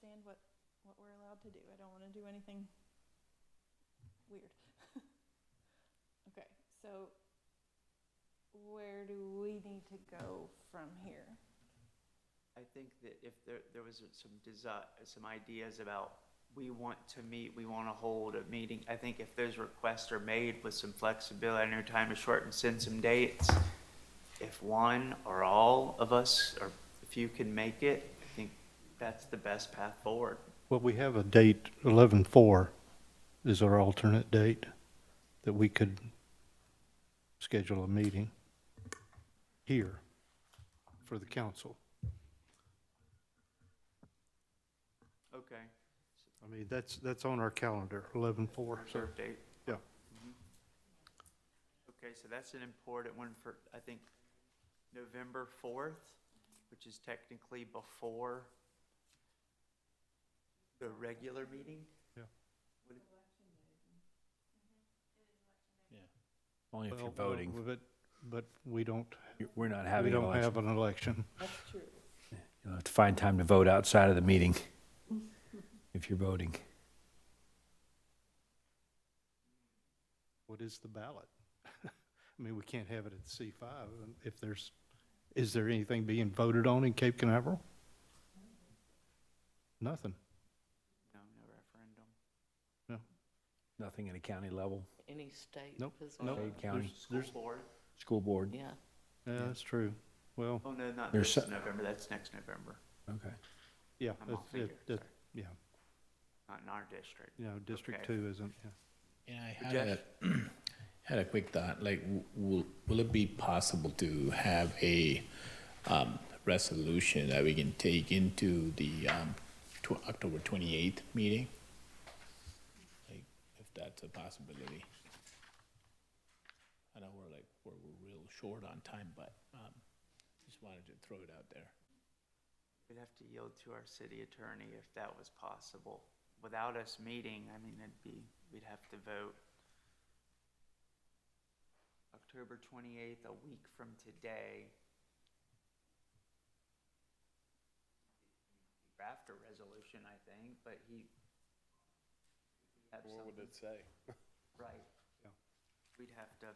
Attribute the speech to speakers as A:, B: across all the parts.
A: what, what we're allowed to do. I don't wanna do anything weird. Okay, so where do we need to go from here?
B: I think that if there, there was some desi some ideas about, we want to meet, we want to hold a meeting, I think if those requests are made with some flexibility, I know time is short, and send some dates, if one or all of us, or if you can make it, I think that's the best path forward.
C: Well, we have a date, eleven-four is our alternate date that we could schedule a meeting here for the council.
B: Okay.
C: I mean, that's, that's on our calendar, eleven-four.
B: Reserve date.
C: Yeah.
B: Mhm. Okay, so that's an important one for, I think, November fourth, which is technically before the regular meeting?
D: Only if
C: Well,
D: you're
C: well,
D: voting.
C: But, but we don't,
D: You- We're not
C: we
D: having an
C: don't have
D: election.
C: an election.
A: That's true.
D: You'll have to find time to vote outside of the meeting if you're voting.
C: What is the ballot? I mean, we can't have it at C five if there's, is there anything being voted on in Cape Canaveral? Nothing.
B: No, no referendum.
D: Nothing at a county level,
E: Any state
C: Nope,
E: position?
C: nope.
D: Fayette County.
C: There's- There's,
B: School board?
D: school board.
E: Yeah,
C: yeah, that's true. Well,
B: Oh, no, not
D: There's
B: this
D: so-
B: November, that's next November.
D: Okay.
C: yeah,
B: I'm
C: that's-
B: off figure,
C: that- that-
B: sorry.
C: yeah,
B: Not in our district.
C: you know, District
B: Okay.
C: Two isn't, yeah.
F: Yeah, I had a, had a quick thought, like, w- will, will it be possible to have a, um, resolution that we can take into the, um, tw- October twenty-eighth meeting? Like, if that's a possibility. I know we're like, we're, we're real short on time, but, um, just wanted to throw it out there.
B: We'd have to yield to our city attorney if that was possible. Without us meeting, I mean, it'd be, we'd have to vote. October twenty-eighth, a week from today. Draft a resolution, I think, but he. What would it say? Right.
C: Yeah.
B: We'd have to.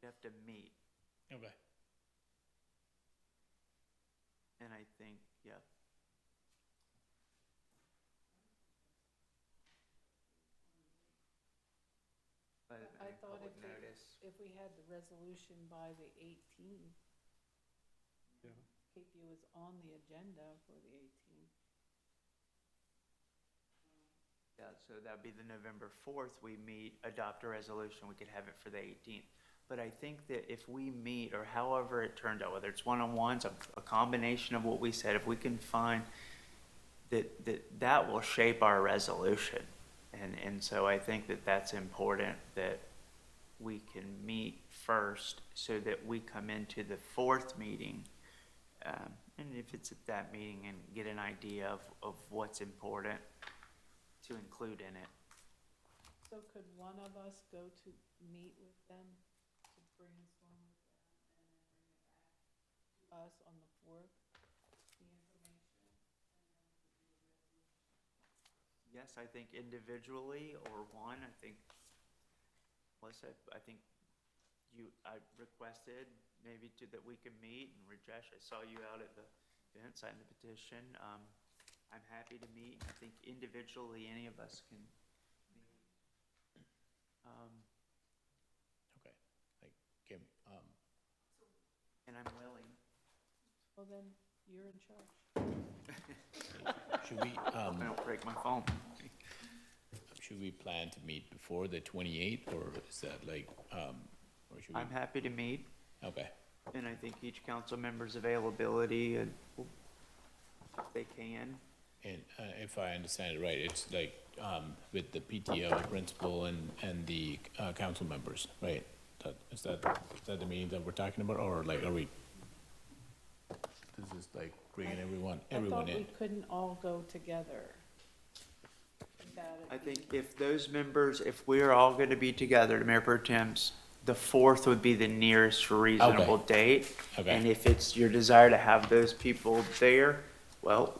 B: We'd have to meet.
F: Okay.
B: And I think, yeah. By the
E: I
B: any
E: thought
B: public
E: if it-
B: notice,
E: if we had the resolution by the eighteenth,
C: Yeah.
E: keep you was on the agenda for the eighteenth.
B: yeah, so that'd be the November fourth, we meet, adopt a resolution, we could have it for the eighteenth. But I think that if we meet, or however it turned out, whether it's one-on-ones, a, a combination of what we said, if we can find that, that, that will shape our resolution. And, and so I think that that's important, that we can meet first so that we come into the fourth meeting. Um, and if it's at that meeting and get an idea of, of what's important to include in it.
E: So could one of us go to meet with them to brainstorm with them and then bring it back to us on the fourth, the information?
B: Yes, I think individually or one, I think, Melissa, I think you, I requested maybe to, that we can meet and Rajesh, I saw you out at the event, signed the petition. Um, I'm happy to meet. I think individually, any of us can meet. Um,
F: Okay, like, give, um,
B: and I'm willing.
E: Well, then, you're in charge.
F: should we, um?
B: I don't break my phone.
F: Should we plan to meet before the twenty-eighth, or is that like, um, or should we?
B: I'm happy to meet
F: Okay,
B: and I think each council member's availability and if they can.
F: and, uh, if I understand it right, it's like, um, with the PTO principal and, and the, uh, council members, right? That, is that, is that the meeting that we're talking about, or like, are we? This is like bringing everyone, everyone
E: I thought
F: in.
E: we couldn't all go together. Without it
B: I
E: being-
B: think if those members, if we're all going to be together, Mayor Pro Tem's, the fourth would be the nearest reasonable date.
F: Okay.
B: And if it's your desire to have those people there, well,